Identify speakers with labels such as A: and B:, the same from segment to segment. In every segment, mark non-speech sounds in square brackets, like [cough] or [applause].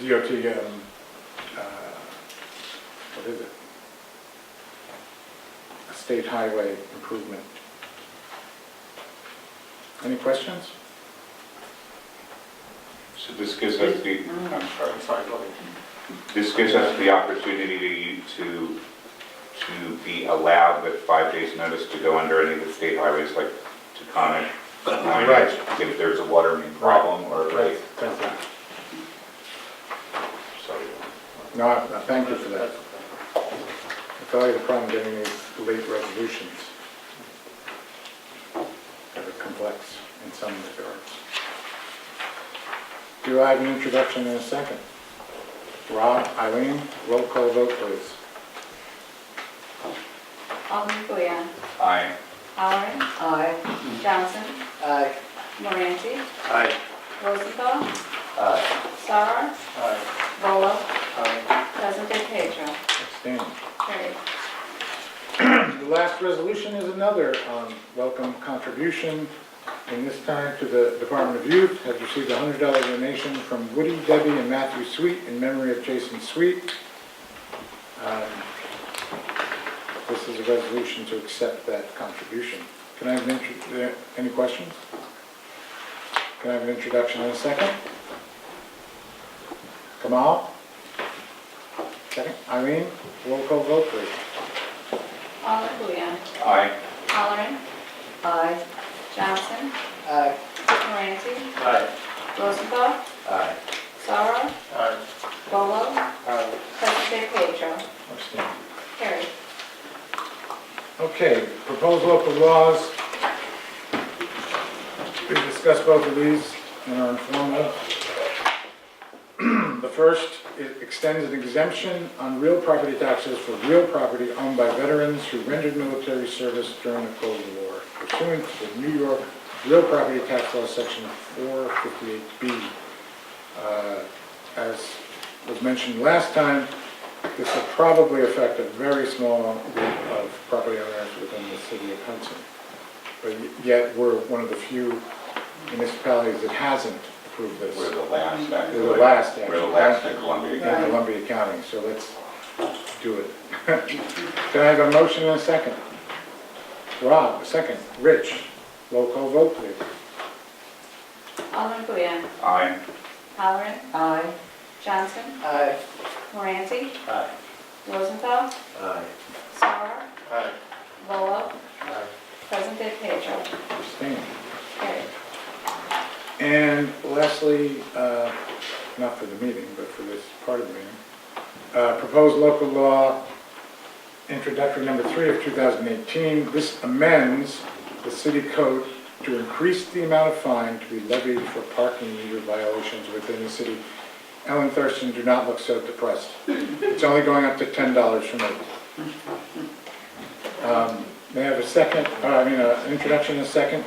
A: DOT, um, uh, what is it? State highway improvement. Any questions?
B: So this gives us the, I'm sorry,
C: I'm sorry, go ahead.
B: this gives us the opportunity to, u- to, to be allowed with five days' notice to go under any of the state highways like Taconic.
A: Right.
B: If there's a water main problem or a lake.
A: That's it.
B: So
A: No, I- I thank you for that. I tell you the problem getting these late resolutions. They're complex in some regards. Do I have an introduction in a second? Rob, Eileen, roll call vote, please.
D: Alden Kuyan.
B: I,
D: Halleran.
E: Aye.
D: Johnson.
E: Aye.
D: Moranti.
C: Aye.
D: Rosenthal. Sarar.
C: Aye.
D: Volo.
C: Aye.
D: President Pedro.
A: Abstain.
D: Carried.
A: The last resolution is another um, welcome contribution, and this time to the Department of Youth, has received a $100 donation from Woody, Debbie, and Matthew Sweet in memory of Jason Sweet. Um, This is a resolution to accept that contribution. Can I have an intro, uh, any questions? Can I have an introduction in a second? Kamal? Second, Eileen, roll call vote, please.
D: Alden Kuyan.
B: I,
D: Halleran.
E: Aye.
D: Johnson.
E: Aye.
D: Moranti.
C: Aye.
D: Rosenthal.
B: uh,
E: Aye.
D: Sarar.
C: Aye.
D: Volo.
C: Aye.
D: President Pedro.
A: Abstain.
D: Carried.
A: Okay, proposed local laws. We discussed both of these in our informal. The first, it extends an exemption on real property taxes for real property owned by veterans who rendered military service during the Cold War pursuant to the New York Real Property Tax Law, Section 458B. Uh, As was mentioned last time, this will probably affect a very small group of property owners within the city of Hudson. But yet, we're one of the few municipalities that hasn't approved this
B: we're the last, actually.
A: We're the last, actually.
B: We're the last in Columbia
A: in
B: County.
A: Columbia County, so let's do it. [laughs] Can I have a motion and a second? Rob, a second. Rich, roll call vote, please.
D: Alden Kuyan.
B: I,
D: Halleran.
E: Aye.
D: Johnson.
E: Aye.
D: Moranti.
C: Aye.
D: Rosenthal.
C: Aye.
D: Sarar.
C: Aye.
D: Volo.
C: Aye.
D: President Pedro.
A: Abstain.
D: Carried.
A: And lastly, uh, not for the meeting, but for this part of the meeting, uh, proposed local law introductory number three of 2018. This amends the city code to increase the amount of fine to be levied for parking meter violations within the city. Ellen Thurston, do not look so depressed. It's only going up to $10 for me. Um, May I have a second, uh, I mean, an introduction and a second?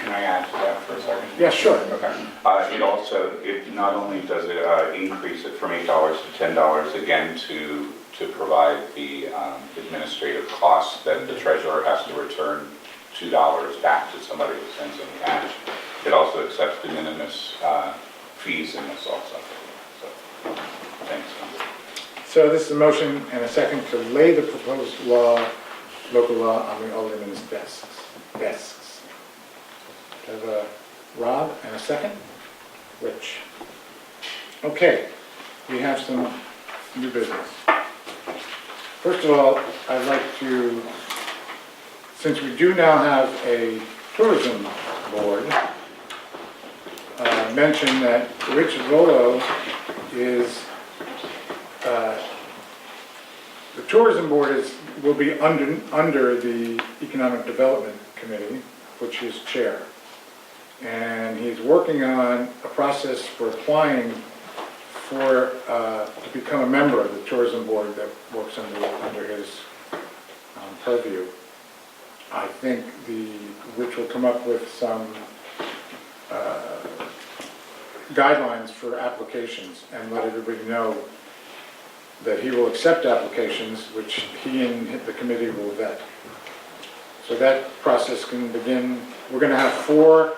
B: can I ask that for a second?
A: Yeah, sure.
B: Okay. Uh, It also, it not only does it uh, increase it from $8 to $10, again, to, to provide the um, administrative costs that the treasurer has to return $2 back to somebody who sends in cash. It also accepts de minimis uh, fees in this also. So, thanks.
A: So this is a motion and a second to lay the proposed law, local law, on the alderman's desks. Desks. Do I Have a Rob and a second? Rich. Okay, we have some new business. First of all, I'd like to, since we do now have a tourism board, uh, mention that Rich Volo is the tourism board is, will be under, under the Economic Development Committee, which he's chair. And he's working on a process for applying for, uh, to become a member of the tourism board that works under, under his um, purview. I think the, which will come up with some uh, guidelines for applications and let everybody know that he will accept applications, which he and the committee will vet. So that process can begin, we're gonna have four